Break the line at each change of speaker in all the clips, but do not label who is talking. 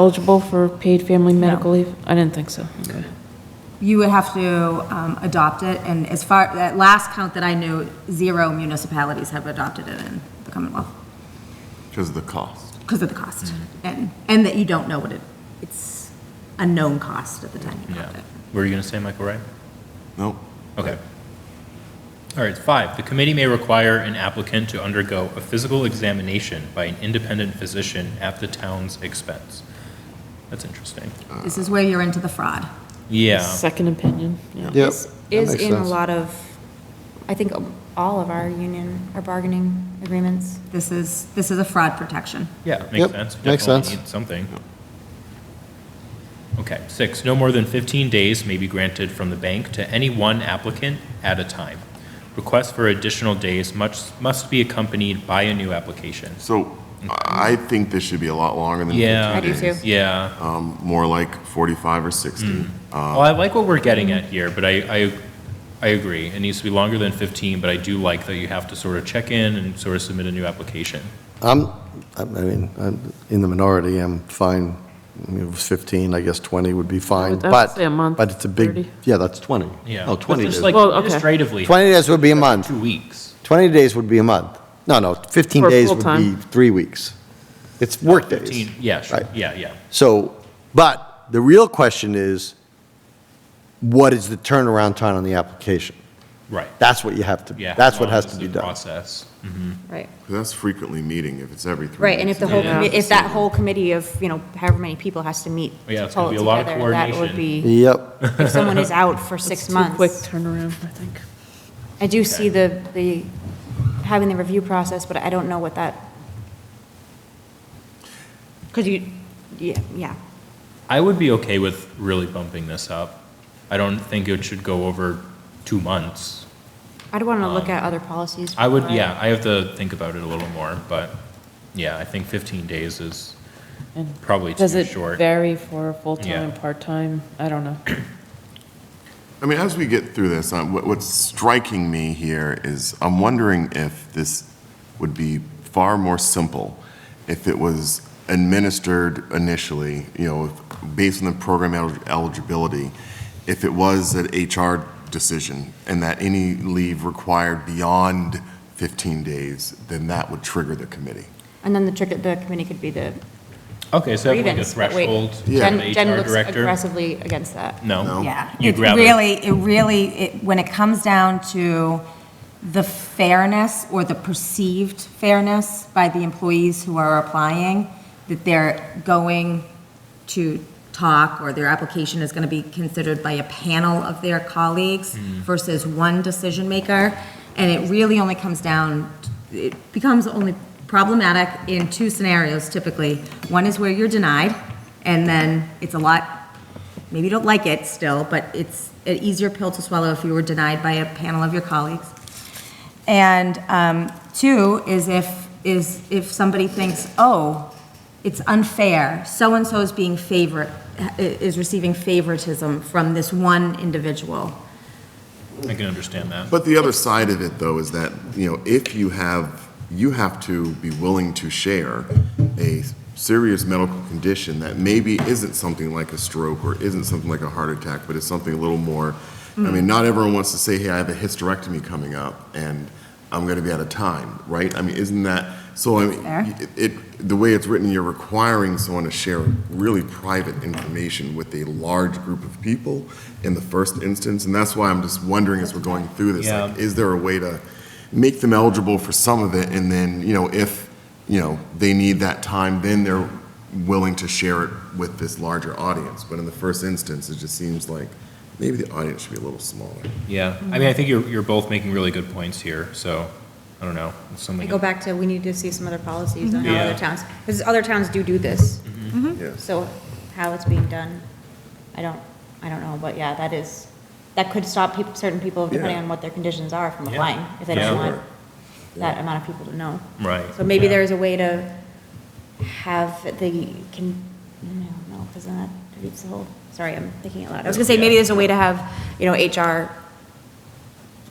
eligible for paid family medical leave? I didn't think so. Okay.
You would have to um, adopt it, and as far, that last count that I knew, zero municipalities have adopted it in the Commonwealth
Because of the cost.
because of the cost, and, and that you don't know what it, it's a known cost at the time you adopt
Yeah.
it.
Were you going to say, Michael, right?
Nope.
Okay. All right, five, the committee may require an applicant to undergo a physical examination by an independent physician at the town's expense. That's interesting.
This is where you're into the fraud.
Yeah,
Second opinion, yeah.
Yep.
is-
that
is
makes
in a
sense.
lot of, I think, um, all of our union, our bargaining agreements.
This is, this is a fraud protection.
yeah, makes
Yep,
sense.
makes
Definitely
sense.
need Something. Okay, six, no more than 15 days may be granted from the bank to any one applicant at a time. Requests for additional days must, must be accompanied by a new application.
So I I think this should be a lot longer than
Yeah. I
15
do
days.
too.
Yeah.
Um, More like 45 or 60. Uh,
Well, I like what we're getting at here, but I, I, I agree. It needs to be longer than 15, but I do like that you have to sort of check in and sort of submit a new application.
I'm, I mean, I'm in the minority, I'm fine, I mean, if it was 15, I guess 20 would be fine,
that's
but,
say a month,
but it's a
30.
big, yeah, that's 20.
Yeah.
No, 20
But just
Oh, days.
like
Well, okay.
administratively,
20 days would be a month,
two weeks.
20 days would be a month. No, no, 15
For
days would be
full-time.
three weeks. It's work days.
15, yeah, sure,
Right.
yeah, yeah.
So, but the real question is, what is the turnaround time on the application?
Right.
That's what you have to,
Yeah.
that's what
Well,
has
this
to
is
be
the
done.
Process.
Right.
That's frequently meeting if it's every three.
Right, and
weeks.
if the whole,
Yeah.
commi- if that whole committee of, you know, however many people has to meet
Yeah,
to
it's gonna
pull it
be a lot of
together, that would
coordination.
be,
Yep.
if someone is out for
It's
six
too
months.
Quick turnaround, I think.
I do see the, the, having the review process, but I don't know what that, because you, yeah, yeah.
I would be okay with really bumping this up. I don't think it should go over two months.
I'd want to look at other policies.
Um, I would,
before
yeah, I have to think about it a little more, but yeah, I think 15 days is
And
probably
Does
too
it
short.
vary for full-time,
Yeah.
part-time? I don't know.
I mean, as we get through this, um, what- what's striking me here is I'm wondering if this would be far more simple if it was administered initially, you know, if- based on the program el- eligibility, if it was an HR decision and that any leave required beyond 15 days, then that would trigger the committee.
And then the trick, the committee could be the
Okay, so have like a
grievance. but wait,
threshold for
Yeah.
Jen-
the
Jen
HR
looks
director?
aggressively against that.
No?
Yeah,
You'd
it
rather-
really, it really, it- when it comes down to the fairness or the perceived fairness by the employees who are applying, that they're going to talk or their application is going to be considered by a panel of their colleagues versus one decision maker. And it really only comes down, it becomes only problematic in two scenarios typically. One is where you're denied, and then it's a lot maybe you don't like it still, but it's an easier pill to swallow if you were denied by a panel of your colleagues. And um, two is if, is if somebody thinks, oh, it's unfair, so-and-so is being favored, is receiving favoritism from this one individual.
I can understand that.
But the other side of it, though, is that, you know, if you have, you have to be willing to share a serious medical condition that maybe isn't something like a stroke or isn't something like a heart attack, but it's something a little more, I mean, not everyone wants to say, hey, I have a hysterectomy coming up and I'm going to be out of time, right? I mean, isn't that, so I mean,
Fair.
it- it, the way it's written, you're requiring someone to share really private information with a large group of people in the first instance, and that's why I'm just wondering as we're going through this,
Yeah.
like, is there a way to make them eligible for some of it, and then, you know, if, you know, they need that time, then they're willing to share it with this larger audience, but in the first instance, it just seems like maybe the audience should be a little smaller.
Yeah, I mean, I think you're, you're both making really good points here, so, I don't know, it's
I
something.
go back to, we need to see some other policies on how
Yeah.
other towns, because other towns do do this.
Yes.
So how it's being done, I don't, I don't know, but yeah, that is, that could stop people, certain people, depending
Yeah.
on what their conditions are, from
Yeah.
applying, if they
Yeah.
don't want
Sure.
that amount of people to know.
Right,
So maybe
yeah.
there is a way to have the, can, I don't know, because then that defeats the whole, sorry, I'm thinking out loud. I was gonna say, maybe there's a way to have, you know, HR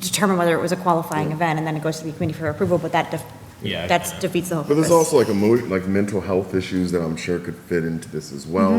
determine whether it was a qualifying event, and then it goes to the committee for approval, but that def-
Yeah, I
That
kinda-
defeats the whole
But
purpose.
there's also like emo like mental health issues that I'm sure could fit into this as well.